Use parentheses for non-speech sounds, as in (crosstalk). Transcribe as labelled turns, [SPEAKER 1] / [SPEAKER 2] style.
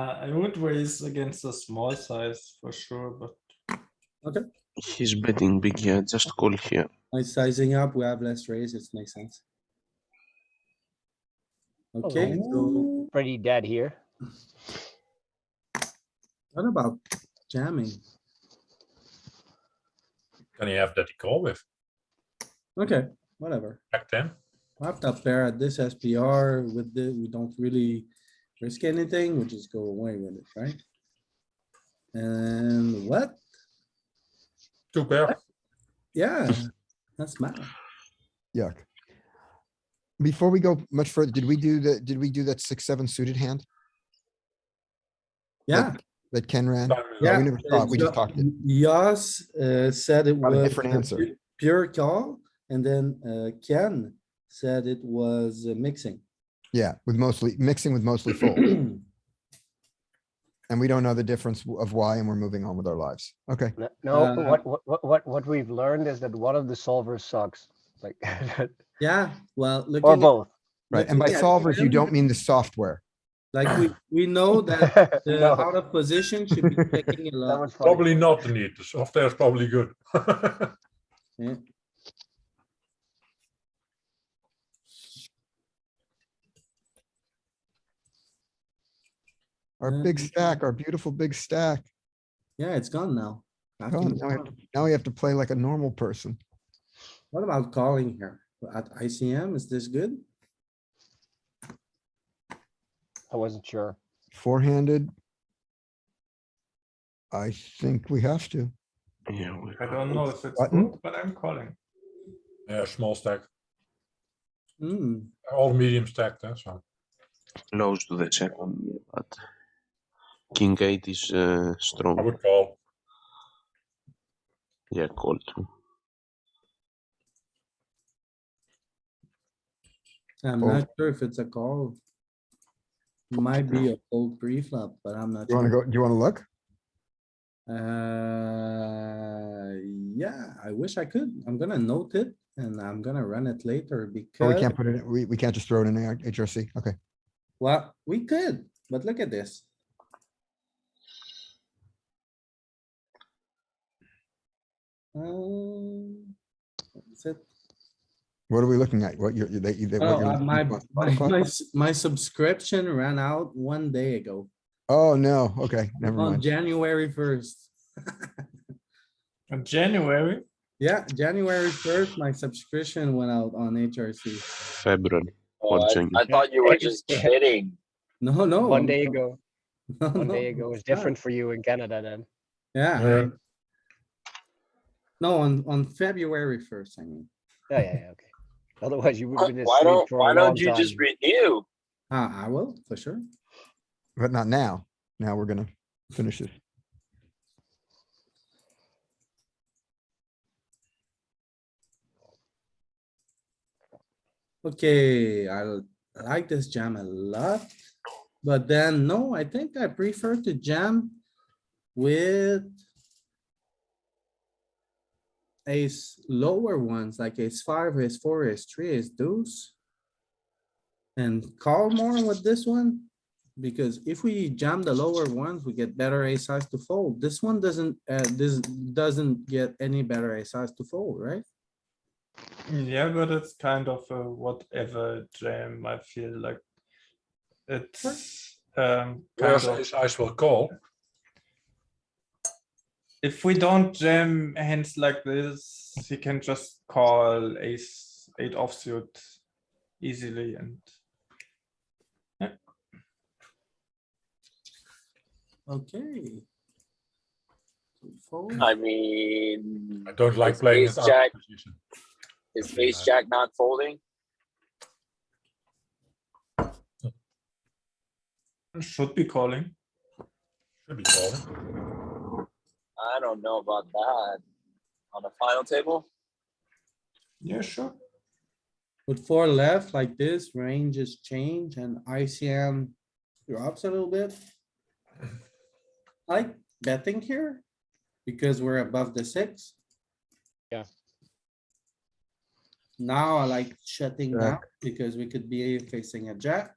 [SPEAKER 1] Uh, I would raise against a small size for sure, but
[SPEAKER 2] He's betting big here, just call here.
[SPEAKER 3] By sizing up, we have less raise, it makes sense. Okay, so
[SPEAKER 4] Pretty dead here.
[SPEAKER 3] what about jamming?
[SPEAKER 5] Can you have that he call with
[SPEAKER 3] Okay, whatever.
[SPEAKER 5] back ten?
[SPEAKER 3] Wrapped up there at this SPR with the, we don't really risk anything, we just go away with it, right? And what?
[SPEAKER 5] Two pair.
[SPEAKER 3] Yeah, that's mad.
[SPEAKER 6] Yuck. Before we go much further, did we do the, did we do that six, seven suited hand
[SPEAKER 3] Yeah,
[SPEAKER 6] that Ken ran?
[SPEAKER 5] Time is
[SPEAKER 3] Yeah.
[SPEAKER 6] We never thought, we just talked it.
[SPEAKER 3] Yas uh, said it
[SPEAKER 6] Got a
[SPEAKER 3] was.
[SPEAKER 6] different
[SPEAKER 3] a
[SPEAKER 6] answer.
[SPEAKER 3] pu- Pure call, and then uh, Ken said it was uh, mixing.
[SPEAKER 6] Yeah, with mostly, mixing with
[SPEAKER 3] (clears throat)
[SPEAKER 6] mostly full. And we don't know the difference of why and we're moving on with our lives. Okay,
[SPEAKER 4] N- No,
[SPEAKER 3] Uh,
[SPEAKER 4] what, what, what, what, what we've learned is that one of the solvers sucks, like, (laughs)
[SPEAKER 3] (clears throat) Yeah, well, looking.
[SPEAKER 4] or
[SPEAKER 3] at-
[SPEAKER 4] both.
[SPEAKER 6] right. And by
[SPEAKER 3] looking at
[SPEAKER 6] solvers, you
[SPEAKER 3] Ken,
[SPEAKER 6] don't mean the software.
[SPEAKER 3] Like, we, we
[SPEAKER 6] (laughs)
[SPEAKER 3] know that the
[SPEAKER 4] (laughs) No,
[SPEAKER 3] out of position should be checking a
[SPEAKER 4] That
[SPEAKER 3] lot.
[SPEAKER 4] was funny.
[SPEAKER 5] Probably not the need. The software is probably good. (laughs)
[SPEAKER 6] Our
[SPEAKER 3] Yeah.
[SPEAKER 6] big stack, our beautiful big stack.
[SPEAKER 3] Yeah, it's gone now. After
[SPEAKER 6] Gone.
[SPEAKER 3] the
[SPEAKER 6] Now we have
[SPEAKER 3] call.
[SPEAKER 6] Now we have to play like a normal person.
[SPEAKER 3] What about calling here? At ICM, is this good?
[SPEAKER 4] I wasn't sure.
[SPEAKER 6] Four-handed. I think we have to.
[SPEAKER 2] Yeah, we
[SPEAKER 1] I don't know if it's
[SPEAKER 6] Button?
[SPEAKER 1] good, but I'm calling.
[SPEAKER 5] Yeah, small stack,
[SPEAKER 3] Hmm,
[SPEAKER 5] all medium stacked, eh, so.
[SPEAKER 2] close to the second, yeah, but King eight is uh,
[SPEAKER 5] I
[SPEAKER 2] strong.
[SPEAKER 5] would call.
[SPEAKER 2] Yeah, call too.
[SPEAKER 3] I'm
[SPEAKER 6] Oh.
[SPEAKER 3] not sure if it's a call. Might be a old pre-flop, but I'm not.
[SPEAKER 6] You wanna
[SPEAKER 3] sure.
[SPEAKER 6] go, do you wanna look?
[SPEAKER 3] Uh, yeah, I wish I could. I'm gonna note it and I'm gonna run it later
[SPEAKER 6] Or we
[SPEAKER 3] because,
[SPEAKER 6] can't put it, in- we, we can't just throw it in our HRC? Okay.
[SPEAKER 3] well, we could, but look at this. Um, that's it.
[SPEAKER 6] What are we looking at? What you're, you- that you, that what
[SPEAKER 3] Oh,
[SPEAKER 6] you're.
[SPEAKER 3] uh,
[SPEAKER 6] looking
[SPEAKER 3] my,
[SPEAKER 6] for?
[SPEAKER 3] my,
[SPEAKER 6] Fuck.
[SPEAKER 3] my s- my subscription ran out one day ago
[SPEAKER 6] Oh, no, okay, never
[SPEAKER 3] on
[SPEAKER 6] mind.
[SPEAKER 3] January first.
[SPEAKER 1] In January,
[SPEAKER 3] Yeah, January first, my subscription went out on
[SPEAKER 1] Hmm.
[SPEAKER 3] HRC.
[SPEAKER 2] February.
[SPEAKER 7] Oh,
[SPEAKER 2] Or
[SPEAKER 7] I,
[SPEAKER 2] Jenkins.
[SPEAKER 7] I thought you were just kidding.
[SPEAKER 3] No, no.
[SPEAKER 4] One day ago,
[SPEAKER 3] (laughs) no,
[SPEAKER 4] one
[SPEAKER 3] no,
[SPEAKER 4] day ago
[SPEAKER 3] (laughs)
[SPEAKER 4] is
[SPEAKER 3] it's not.
[SPEAKER 4] different for you in Canada then.
[SPEAKER 3] Yeah,
[SPEAKER 5] Yeah.
[SPEAKER 3] no, on, on February first, I mean.
[SPEAKER 4] Yeah, yeah, yeah, okay. Otherwise you would
[SPEAKER 7] Why
[SPEAKER 4] have been
[SPEAKER 7] Uh, why
[SPEAKER 4] asleep
[SPEAKER 7] don't,
[SPEAKER 4] for a
[SPEAKER 7] why
[SPEAKER 4] long
[SPEAKER 7] don't you
[SPEAKER 4] time.
[SPEAKER 7] just renew?
[SPEAKER 3] Ah, I will, for sure.
[SPEAKER 6] But not now. Now we're gonna finish this.
[SPEAKER 3] Okay, I l- I like this jam a lot. But then, no, I think I prefer to jam with ace lower ones like ace five, ace four, ace three, ace deuce. And call more with this one, because if we jam the lower ones, we get better ace size to fold. This one doesn't, uh, this doesn't get any better ace size to fold, right?
[SPEAKER 1] yeah, but it's kind of a whatever jam, I feel like. It's, um, kind
[SPEAKER 5] Whereas
[SPEAKER 1] of,
[SPEAKER 5] ace ice will call,
[SPEAKER 1] if we don't jam hands like this, he can just call ace, eight offsuit easily and.
[SPEAKER 3] Okay. Two fold.
[SPEAKER 7] I mean,
[SPEAKER 5] I don't like
[SPEAKER 7] It's
[SPEAKER 5] playing
[SPEAKER 7] ace
[SPEAKER 5] it out
[SPEAKER 7] jack.
[SPEAKER 5] of position.
[SPEAKER 7] is ace jack not folding?
[SPEAKER 1] Should be calling.
[SPEAKER 5] Should be calling.
[SPEAKER 7] I don't know about that. On the final table?
[SPEAKER 1] Yeah, sure.
[SPEAKER 3] With four left like this, ranges change and ICM drops a little bit. I Like betting here, because we're above the six.
[SPEAKER 4] Yeah.
[SPEAKER 3] Now I like shutting
[SPEAKER 6] Jack.
[SPEAKER 3] down because we could be facing a jack.